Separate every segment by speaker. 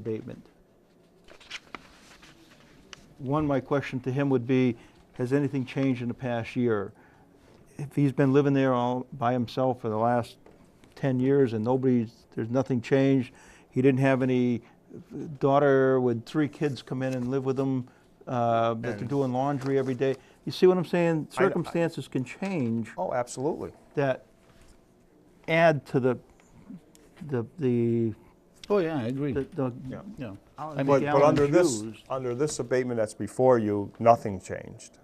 Speaker 1: abatement. One, my question to him would be, has anything changed in the past year? If he's been living there all by himself for the last 10 years and nobody's, there's nothing changed, he didn't have any daughter with three kids come in and live with him, uh, that they're
Speaker 2: And-
Speaker 1: doing laundry every day. You see what I'm saying?
Speaker 2: I- I-
Speaker 1: Circumstances can change
Speaker 2: Oh, absolutely.
Speaker 1: that add to the, the, the,
Speaker 3: Oh, yeah, I agree.
Speaker 1: the- the,
Speaker 2: Yeah.
Speaker 3: Yeah.
Speaker 1: I
Speaker 3: I
Speaker 2: But,
Speaker 3: mean,
Speaker 1: the
Speaker 2: but
Speaker 1: Allen
Speaker 2: under this,
Speaker 1: shoes.
Speaker 2: under this abatement that's before you, nothing changed.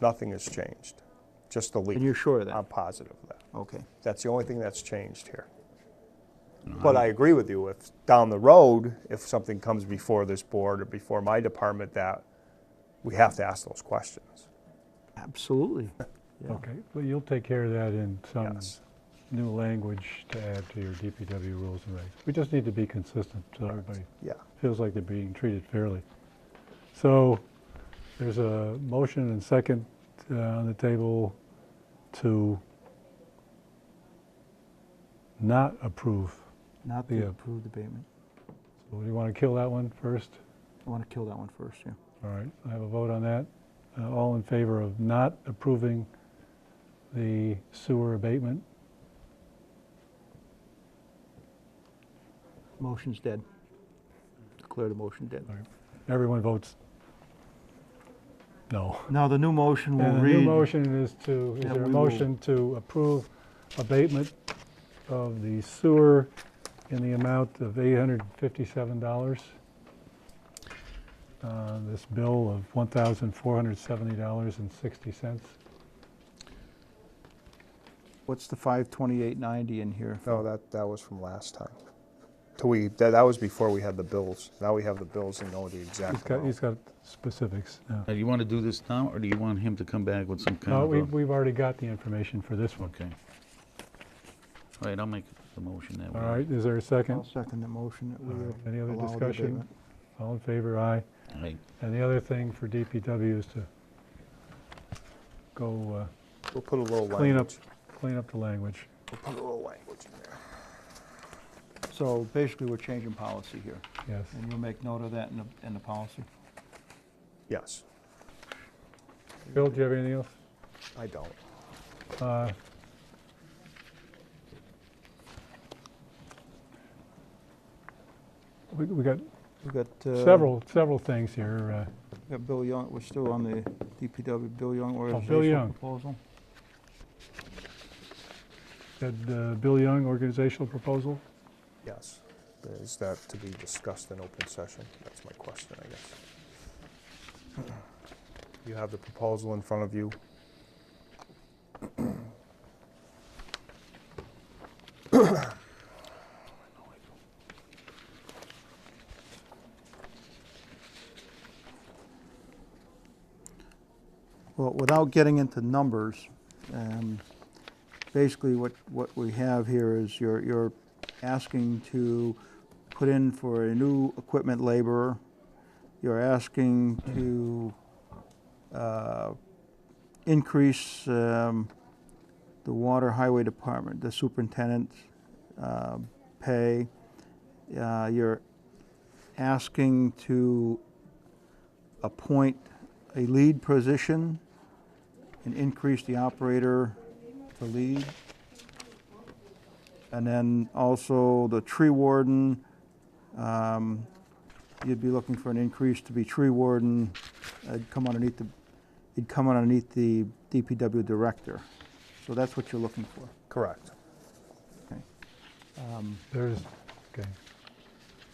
Speaker 2: Nothing has changed, just the leak.
Speaker 1: and you're sure of that?
Speaker 2: I'm positive of that.
Speaker 1: Okay.
Speaker 2: That's the only thing that's changed here. But I agree with you, if down the road, if something comes before this board or before my department, that we have to ask those questions.
Speaker 1: Absolutely. Yeah.
Speaker 4: Okay, well, you'll take care of that in some
Speaker 2: Yes.
Speaker 4: new language to add to your DPW rules and regs. We just need to be consistent, so everybody
Speaker 2: Yeah.
Speaker 4: feels like they're being treated fairly. So, there's a motion and second uh, on the table to not approve.
Speaker 1: Not
Speaker 4: Yeah.
Speaker 1: the approved abatement.
Speaker 4: So, do you want to kill that one first?
Speaker 1: I want to kill that one first, yeah.
Speaker 4: All right, I have a vote on that. Uh, All in favor of not approving the sewer abatement?
Speaker 1: Motion's dead. Declare the motion dead.
Speaker 4: Everyone votes no.
Speaker 1: Now, the new motion will
Speaker 4: And the
Speaker 1: read.
Speaker 4: new motion is to, is
Speaker 1: Yeah,
Speaker 4: there a
Speaker 1: we will-
Speaker 4: motion to approve abatement of the sewer in the amount of $857? Uh, This bill of $1,470.60.
Speaker 1: What's the 52890 in here?
Speaker 2: No, that, that was from last time. Till we, that, that was before we had the bills. Now we have the bills and know the
Speaker 4: He's
Speaker 2: exact
Speaker 4: got, he's
Speaker 2: amount.
Speaker 4: got specifics now.
Speaker 3: Now, do you want to do this now, or do you want him to come back with some kind
Speaker 4: No,
Speaker 3: of
Speaker 4: we-
Speaker 3: a...
Speaker 4: we've already got the information for this one.
Speaker 3: Okay. All right, I'll make the motion that way.
Speaker 4: All right, is there a
Speaker 1: I'll
Speaker 4: second?
Speaker 1: second the motion that we
Speaker 4: All right,
Speaker 1: uh,
Speaker 4: Any other
Speaker 1: allow the
Speaker 4: discussion?
Speaker 1: abatement.
Speaker 4: All in favor, aye.
Speaker 3: All right.
Speaker 4: And the other thing for DPW is to go
Speaker 2: We'll put a little
Speaker 4: uh, clean up,
Speaker 2: language,
Speaker 4: clean up the language.
Speaker 2: we'll put a little language in there.
Speaker 1: So basically, we're changing policy here,
Speaker 4: Yes,
Speaker 1: and you'll make note of that in the, in the policy.
Speaker 2: Yes,
Speaker 4: Bill, do you have anything else?
Speaker 2: I don't.
Speaker 4: Uh, We, we got
Speaker 1: We've got. uh,
Speaker 4: several, several things here. uh,
Speaker 1: we've got Bill Young, we're still on the DPW Bill Young
Speaker 4: Oh, Young.
Speaker 1: organizational proposal.
Speaker 4: That uh, Bill Young organizational proposal,
Speaker 2: Yes. Is that to be discussed in open session? That's my question, I guess. You have the proposal in front of you.
Speaker 1: Well, without getting into numbers, um, basically what, what we have here is you're, you're asking to put in for a new equipment laborer. You're asking to uh, increase um, the water highway department, the superintendent's uh, pay. Uh, You're asking to appoint a lead position and increase the operator to lead. And then also the tree warden, um, you'd be looking for an increase to be tree warden. It'd come underneath the, it'd come underneath the DPW director. So that's what you're looking for.
Speaker 2: Correct.
Speaker 4: there's, okay.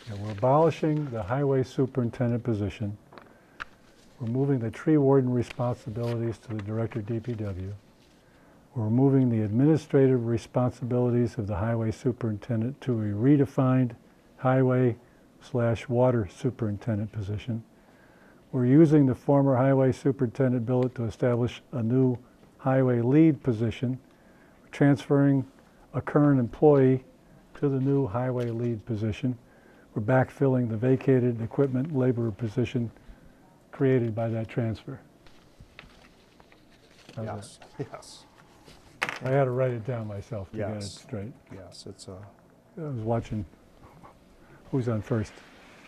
Speaker 4: Yeah, We're abolishing the highway superintendent position. We're moving the tree warden responsibilities to the director DPW. We're moving the administrative responsibilities of the highway superintendent to a redefined highway slash water superintendent position. We're using the former highway superintendent billet to establish a new highway lead position. We're Transferring a current employee to the new highway lead position. We're backfilling the vacated equipment laborer position created by that transfer. How's that?
Speaker 2: Yes, yes,
Speaker 4: I had to write it down myself to get it
Speaker 2: Yes.
Speaker 4: straight.
Speaker 2: yes, it's a,
Speaker 4: I was watching who's on first.